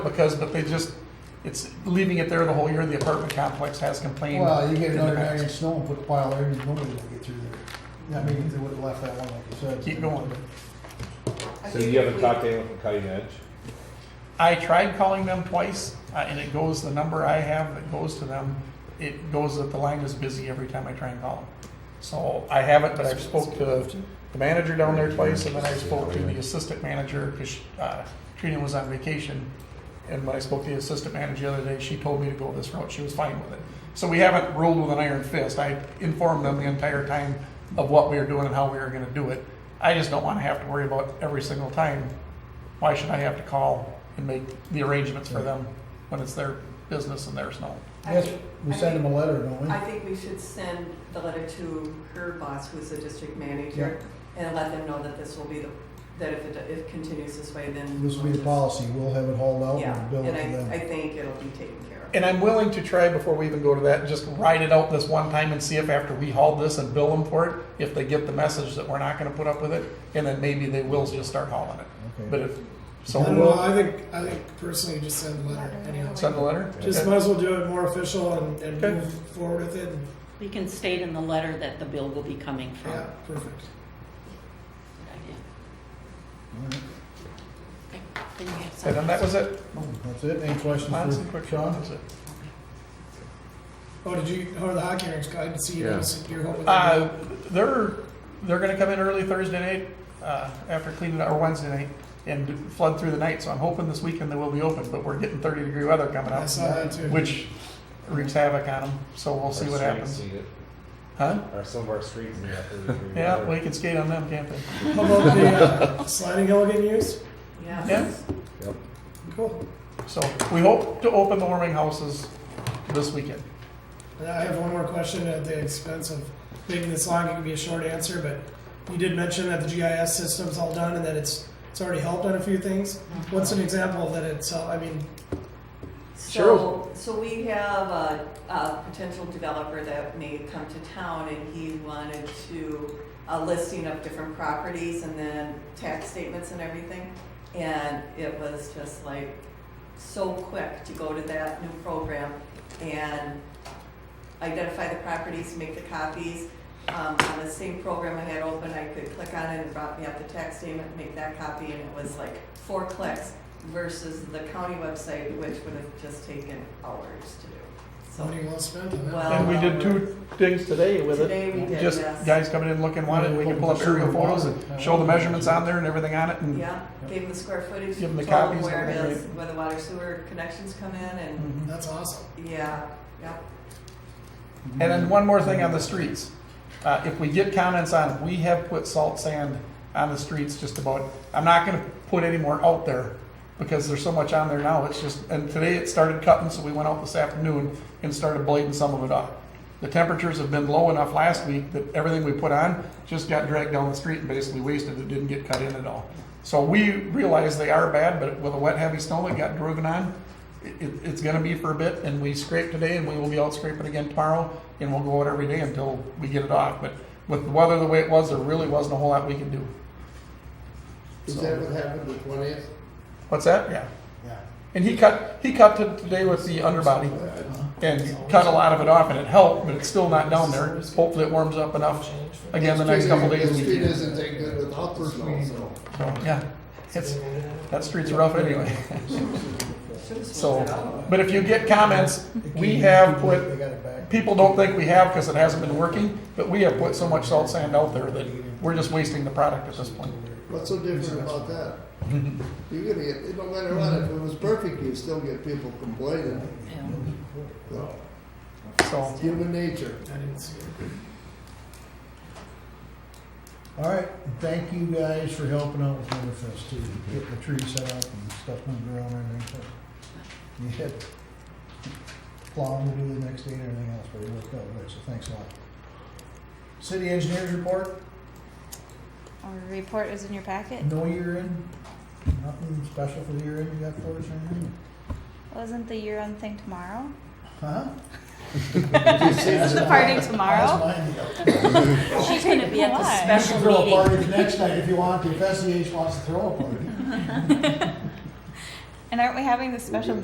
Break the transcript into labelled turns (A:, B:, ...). A: because, but they just, it's leaving it there the whole year, the apartment complex has complained.
B: Well, you get
A: in
B: another
A: the past.
B: nine inch snow and put the pile there, and nobody's gonna get through there. I mean, if they would've left that one, like you said.
A: Keep going.
C: I
D: So
C: think
D: you
C: if
D: haven't
C: we-
D: talked to anyone from Cutting Edge?
A: I tried calling them twice, uh, and it goes, the number I have that goes to them, it goes that the line is busy every time I try and call them. So I haven't, but I've spoke to the manager down there twice, and then I spoke to the assistant manager, because uh, Trina was on vacation. And when I spoke to the assistant manager the other day, she told me to go this route, she was fine with it. So we haven't ruled with an iron fist, I informed them the entire time of what we were doing and how we were gonna do it. I just don't wanna have to worry about every single time, why should I have to call and make the arrangements for them when it's their business and their snow?
C: I
B: Yes,
C: think-
B: we
C: I
B: send them
C: think-
B: a letter, don't we?
C: I think we should send the letter to her boss, who's the district manager, and let them know that this will be the, that if it, if it continues this way, then.
B: This will be
C: we'll
B: the
C: just-
B: policy, we'll have it hauled out
C: Yeah,
B: and bill it
C: and
B: to
C: I, I
B: them.
C: think it'll be taken care of.
A: And I'm willing to try before we even go to that, just ride it out this one time and see if after we haul this and bill them for it, if they get the message that we're not gonna put up with it, and then maybe they will just start hauling it. But
B: Okay.
A: if, so
E: I don't know.
A: we'll
E: I think I think personally, just send a letter. Anyhow,
A: send the letter?
E: just might as well do it more official and, and
A: Okay.
E: move forward with it. And,
F: We can state in the letter that the bill will be coming from.
E: yeah, perfect.
F: Okay, Then you have
A: And then that
F: something.
A: was it.
B: That's it, any questions
A: Lance,
B: for
A: quick, that
B: Sean?
A: was it.
E: Oh, did you? How are the hockey rinks? I didn't see you.
G: Yeah.
E: guys. You're hoping.
A: Uh, they're, they're gonna come in early Thursday night, uh, after cleaning, or Wednesday night, and flood through the night, so I'm hoping this weekend they will be open, but we're getting thirty degree weather coming
E: I
A: up,
E: saw that too.
A: uh, which wreaks havoc on them, so we'll see what happens. Huh?
D: Or some of our streets in that.
A: Yeah, we can skate on them, can't we?
E: How about the uh, sliding hill getting used?
C: Yeah.
A: Yeah.
E: Cool.
A: So we hope to open the warming houses this weekend.
E: And I have one more question at the expense of making this long. It can be a short answer, but you did mention that the GIS system's all done and that it's it's already helped on a few things. What's an example of that? It's uh, I mean,
C: So, so we have a, a potential developer that may come to town and he wanted to, a listing of different properties and then tax statements and everything. And it was just like so quick to go to that new program and identify the properties, make the copies. Um, on the same program I had open, I could click on it and it brought me up the tax statement, make that copy, and it was like four clicks versus the county website, which would have just taken hours to do.
E: money
C: So,
E: well spent on that.
C: Well-
A: And we did two things today with it.
C: today we did
A: Just
C: this.
A: guys coming in looking, wanting, we can pull up aerial photos and show the measurements on there and everything on it and
C: Yeah, gave them the square footage,
A: Give
C: told
A: 'em the
C: them
A: copies,
C: where it
A: that'd be
C: is, where the water sewer connections come in, and,
A: Mhm.
E: That's awesome.
C: yeah, yep.
A: And then one more thing on the streets. Uh, if we get comments on, we have put salt sand on the streets just about, I'm not gonna put any more out there because there's so much on there now, it's just, and today it started cutting, so we went out this afternoon and started blading some of it off. The temperatures have been low enough last week that everything we put on just got dragged down the street and basically wasted, it didn't get cut in at all. So we realize they are bad, but with a wet heavy snow that got driven on, it, it- it's gonna be for a bit, and we scrape today, and we will be out scraping again tomorrow, and we'll go out every day until we get it off, but with the weather the way it was, there really wasn't a whole lot we could do.
H: Is that what happened with twentieth?
A: What's that? Yeah.
H: Yeah.
A: And he cut, he cut it today with the underbody and cut a lot of it off, and it helped, but it's still not down there. Hopefully it warms up enough again the next couple days.
H: The
A: we
H: street
A: can.
H: isn't that good without the snow, so.
A: So, yeah, it's, that street's rough anyway.
C: Should've
A: So,
C: swapped it out.
A: but if you get comments, we have
B: They
A: put,
B: got it back.
A: people don't think we have because it hasn't been working, but we have put so much salt sand out there that we're just wasting the product at this point.
H: What's so different about that? You're gonna get, no matter what, if it was perfect, you'd still get people complaining.
F: Yeah.
H: So,
A: So,
H: Human nature.
E: I didn't see it.
B: All right, and thank you guys for helping out with Winterfest too, getting the tree set up and stuff moved around and everything. You had plowing to do the next day and everything else, but it worked out good, so thanks a lot. City engineers report,
I: Our report is in your packet.
B: no year in, nothing special for the year in you got for us or anything?
I: Wasn't the year end thing tomorrow?
B: Huh?
I: Is the party tomorrow?
F: She's gonna be at the
I: Why?
B: You
F: special
B: can throw a
F: meeting.
B: E party the next night if you want to, if SEH wants to throw a party.
I: And aren't we having the special